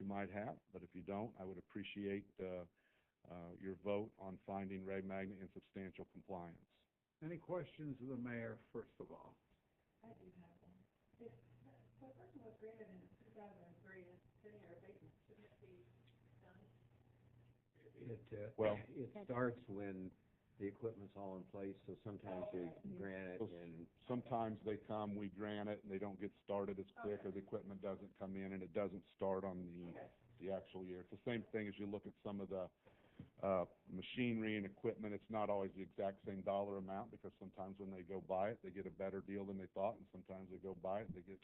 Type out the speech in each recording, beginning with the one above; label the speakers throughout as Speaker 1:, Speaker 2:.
Speaker 1: you might have, but if you don't, I would appreciate uh, uh, your vote on finding Ray Magna in substantial compliance.
Speaker 2: Any questions of the mayor, first of all?
Speaker 3: It, uh,
Speaker 1: Well-
Speaker 3: it starts when the equipment's all in place, so sometimes they grant it
Speaker 1: Those-
Speaker 3: and,
Speaker 1: Sometimes they come, we grant it, and they don't get started as quick, or the equipment doesn't come in, and it doesn't start on the, the actual year. It's the same thing as you look at some of the, uh, machinery and equipment, it's not always the exact same dollar amount, because sometimes when they go buy it, they get a better deal than they thought, and sometimes they go buy it, they get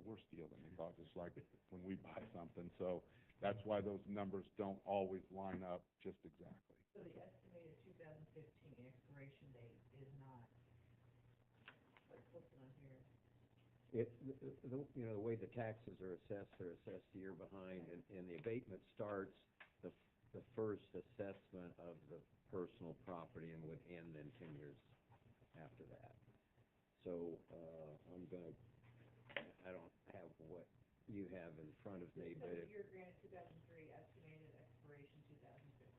Speaker 1: a worse deal than they thought, just like when we buy something. So that's why those numbers don't always line up just exactly.
Speaker 3: it, the- the, you know, the way the taxes are assessed, they're assessed year behind, and, and the abatement starts the, the first assessment of the personal property and would end then ten years after that. So, uh, I'm gonna, I don't have what you have in front of me, but it.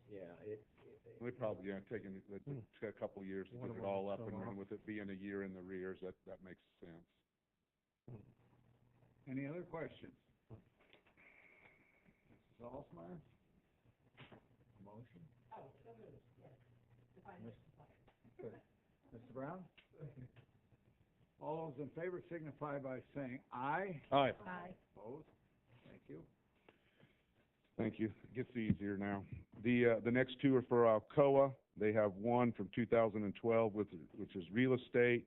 Speaker 3: Yeah, it, it,
Speaker 1: We probably, yeah, taking, it took a couple of years to get it all up and running, with it being a year in the rears, that, that makes sense.
Speaker 2: Any other questions? Mrs. Alsmeyer? Motion? Oh, so moved, yes. Mr. Brown? All those in favor signify by saying aye.
Speaker 1: Aye.
Speaker 2: Opposed? Thank you.
Speaker 1: Thank you. It gets easier now. The, uh, the next two are for Alcoa. They have one from two thousand and twelve, with, which is real estate,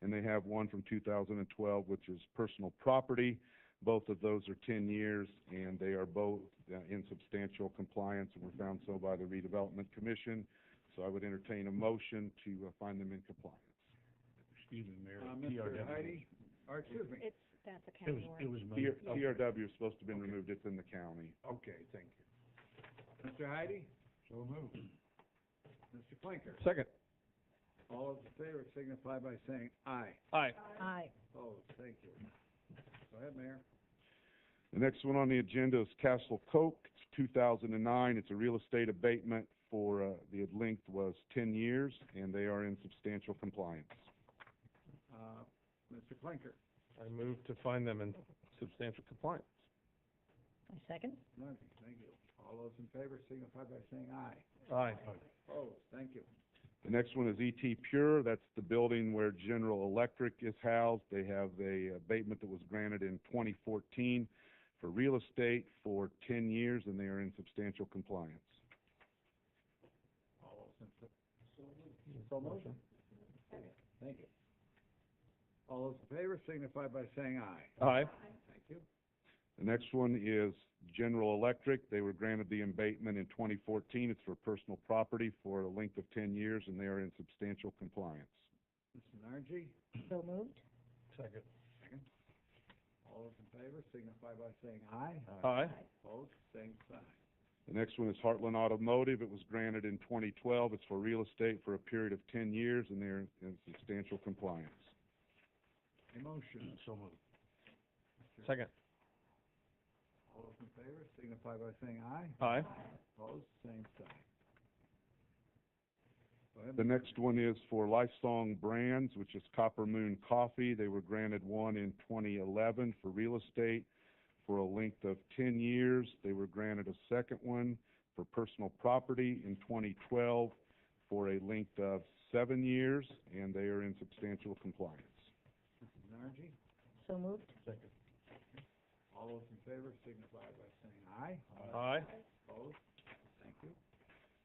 Speaker 1: and they have one from two thousand and twelve, which is personal property. Both of those are ten years, and they are both uh, in substantial compliance, and were found so by the redevelopment commission. So I would entertain a motion to uh, find them in compliance.
Speaker 4: Excuse me, Mayor,
Speaker 2: Uh,
Speaker 4: TRW.
Speaker 2: Mr. Heidi, or excuse me,
Speaker 5: It's, that's a
Speaker 4: It was,
Speaker 5: county
Speaker 4: it
Speaker 5: word.
Speaker 4: was
Speaker 1: TR-
Speaker 4: moved.
Speaker 1: TRW is supposed to have been removed, it's in the county.
Speaker 2: okay, thank you. Mr. Heidi? So moved. Mr. Flinker?
Speaker 1: Second.
Speaker 2: All those in favor signify by saying aye.
Speaker 4: Aye.
Speaker 5: Aye.
Speaker 2: Opposed? Thank you. Go ahead, Mayor.
Speaker 1: The next one on the agenda is Castle Coke, it's two thousand and nine, it's a real estate abatement for, uh, the length was ten years, and they are in substantial compliance.
Speaker 2: Uh, Mr. Clinker,
Speaker 4: I moved to find them in substantial compliance.
Speaker 5: I second.
Speaker 2: none, thank you. All those in favor signify by saying aye.
Speaker 4: Aye.
Speaker 2: Opposed? Thank you.
Speaker 1: The next one is ET Pure, that's the building where General Electric is housed. They have a abatement that was granted in twenty fourteen for real estate for ten years, and they are in substantial compliance.
Speaker 2: All those in. So motion. Thank you. All those in favor signify by saying aye.
Speaker 4: Aye.
Speaker 2: Thank you.
Speaker 1: The next one is General Electric. They were granted the abatement in 2014. It's for personal property for a length of 10 years, and they are in substantial compliance.
Speaker 2: Mr. Nargi,
Speaker 5: So moved.
Speaker 4: Second.
Speaker 2: all those in favor signify by saying aye.
Speaker 4: Aye.
Speaker 2: Opposed? Same sign.
Speaker 1: The next one is Heartland Automotive. It was granted in 2012. It's for real estate for a period of 10 years, and they're in substantial compliance.
Speaker 2: A motion.
Speaker 4: So moved. Second.
Speaker 2: All those in favor signify by saying aye.
Speaker 4: Aye.
Speaker 2: Opposed? Same sign. Go ahead,
Speaker 1: The
Speaker 2: Mr.
Speaker 1: next one is for Lifesong Brands, which is Copper Moon Coffee. They were granted one in 2011 for real estate for a length of 10 years. They were granted a second one for personal property in 2012 for a length of seven years, and they are in substantial compliance.
Speaker 2: Mrs. Nargi.
Speaker 5: So moved.
Speaker 4: Second.
Speaker 2: All those in favor signify by saying aye.
Speaker 4: Aye.
Speaker 2: Opposed? Thank you.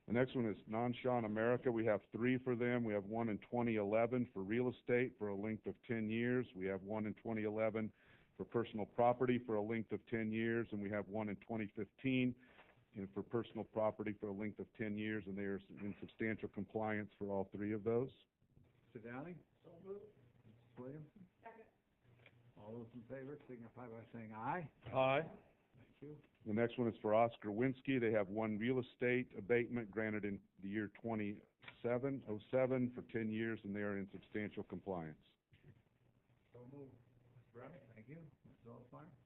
Speaker 1: The next one is Nanshan America. We have three for them. We have one in 2011 for real estate for a length of 10 years. We have one in 2011 for personal property for a length of 10 years, and we have one in 2015 and for personal property for a length of 10 years, and they are in substantial compliance for all three of those.
Speaker 2: Mr. Downing? So moved. Mrs. Williams? Second. All those in favor signify by saying aye.
Speaker 4: Aye.
Speaker 2: Thank you.
Speaker 1: The next one is for Oscar Winsky. They have one real estate abatement granted in the year 2707 for 10 years, and they are in substantial compliance.
Speaker 2: So moved. Mr. Brown? Thank you. Mrs. Alsmeyer?